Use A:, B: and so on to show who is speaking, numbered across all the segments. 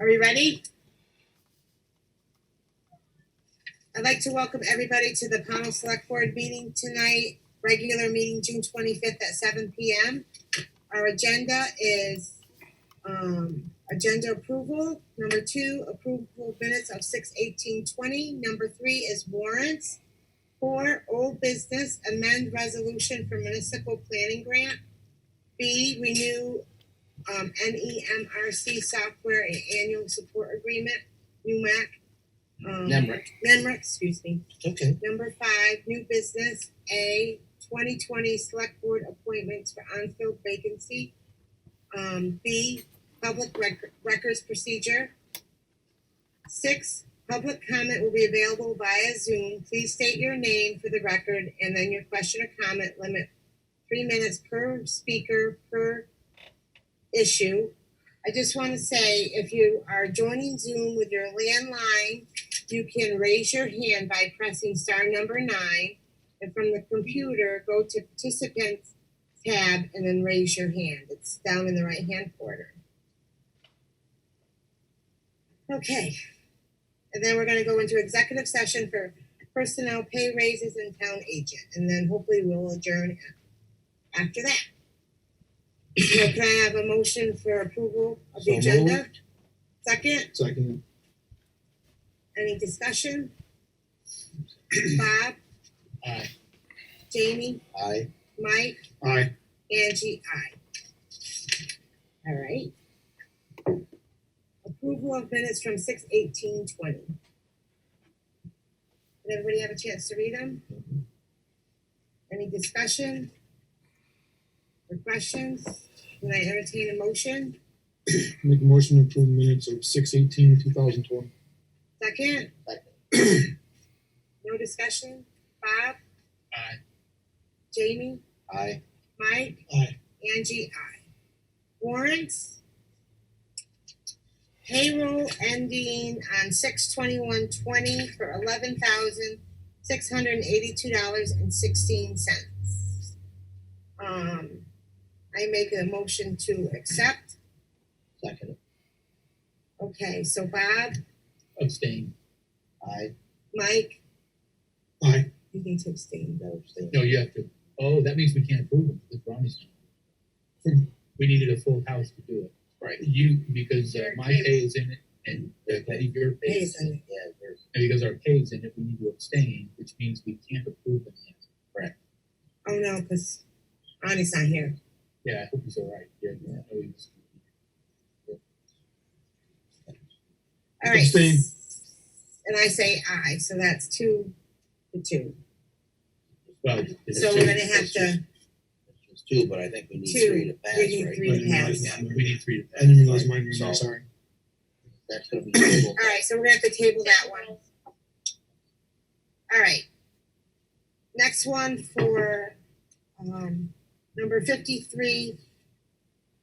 A: Are we ready? I'd like to welcome everybody to the Pownell Select Board meeting tonight, regular meeting June twenty-fifth at seven P M. Our agenda is, um, agenda approval. Number two, approval of minutes of six eighteen twenty. Number three is warrants. Four, old business, amend resolution for municipal planning grant. B, renew um, NEMRC software and annual support agreement, NUMAC. um,
B: Nemrick.
A: NEMRIC, excuse me.
B: Okay.
A: Number five, new business, A, twenty twenty select board appointments for unfilled vacancy. Um, B, public rec- records procedure. Six, public comment will be available via Zoom. Please state your name for the record and then your question or comment limit. Three minutes per speaker per issue. I just want to say, if you are joining Zoom with your landline, you can raise your hand by pressing star number nine. And from the computer, go to participants tab and then raise your hand. It's down in the right hand corner. Okay. And then we're going to go into executive session for personnel pay raises and town agent. And then hopefully we'll adjourn a- after that. So can I have a motion for approval of the
B: So
A: agenda? Second?
B: Second.
A: Any discussion? Bob,
B: Aye.
A: Jamie,
B: Aye.
A: Mike,
B: Aye.
A: Angie, I. All right. Approval of minutes from six eighteen twenty. Did everybody have a chance to read them? Any discussion? Or questions? Can I entertain a motion?
B: Make a motion to approve minutes of six eighteen, two thousand twenty.
A: Second? No discussion? Bob,
B: Aye.
A: Jamie,
B: Aye.
A: Mike?
B: Aye.
A: Angie, I. Warrants. Payroll ending on six twenty-one twenty for eleven thousand six hundred and eighty-two dollars and sixteen cents. Um, I make a motion to accept.
B: Second.
A: Okay, so Bob,
B: Abstain. Aye.
A: Mike,
B: Aye.
A: you need to abstain.
C: No, you have to. Oh, that means we can't approve them because Ronnie's not. We needed a full house to do it.
B: Right.
C: You, because uh,
A: Your
C: my
A: pay-
C: pay is in it and uh, Betty, your pay is in it.
A: Jason,
C: And because our pay is in it, we need to abstain, which means we can't approve them. yet.
A: oh no, cause Ronnie's not here.
C: Yeah, I hope he's all right. Yeah. yeah, I know he was-
A: All right.
B: Abstain.
A: And I say aye, so that's two to two.
C: Well. it's-
A: So we're gonna have to.
D: It's two, but I think we need
A: Two.
D: three to pass,
A: We need
D: right?
A: three to pass.
C: Yeah, We need three to
B: I
C: pass.
B: didn't realize mine was,
D: So-
B: I'm sorry.
D: That's gonna be tabled.
A: All right, so we're gonna have to table that one. All right. Next one for, um, number fifty-three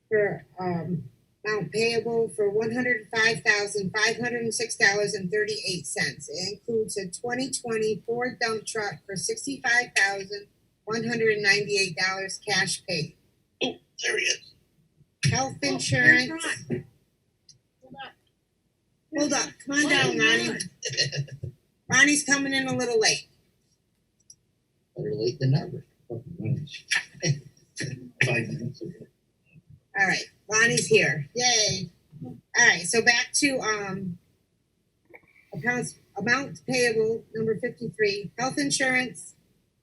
A: for, um, amount payable for one hundred five thousand, five hundred and six dollars and thirty-eight cents. It includes a twenty twenty Ford dump truck for sixty-five thousand, one hundred and ninety-eight dollars cash paid.
D: Oh, There he is.
A: Health insurance. Hold up, come on down, Ronnie. Ronnie's coming in a little late.
D: Better late than never. Five minutes.
A: All right, Lonnie's here. Yay. All right, so back to um accounts amount payable number fifty-three, health insurance,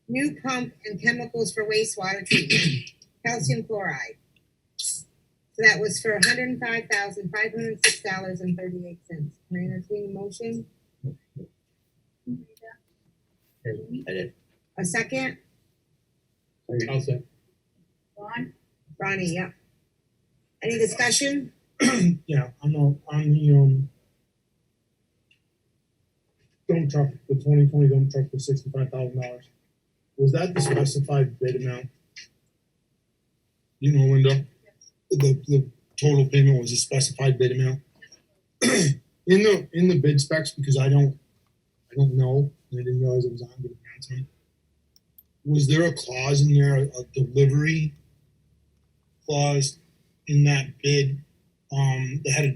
A: new pump and chemicals for wastewater treatment, calcium chloride. So that was for hundred and five thousand, five hundred and six dollars and thirty-eight cents. Can I entertain a motion?
D: I did.
A: A second?
C: I'll say,
A: Ronnie, yep. Any discussion?
B: Yeah, I'm on, on the, um, dump truck, the twenty twenty dump truck for sixty-five thousand dollars. Was that the specified bid amount? You know, Linda, the, the total payment was a specified bid amount? in the in the bid specs because I don't I don't know and I didn't realize it was on the announcement. Was there a clause in there, a delivery clause in that bid um, that had a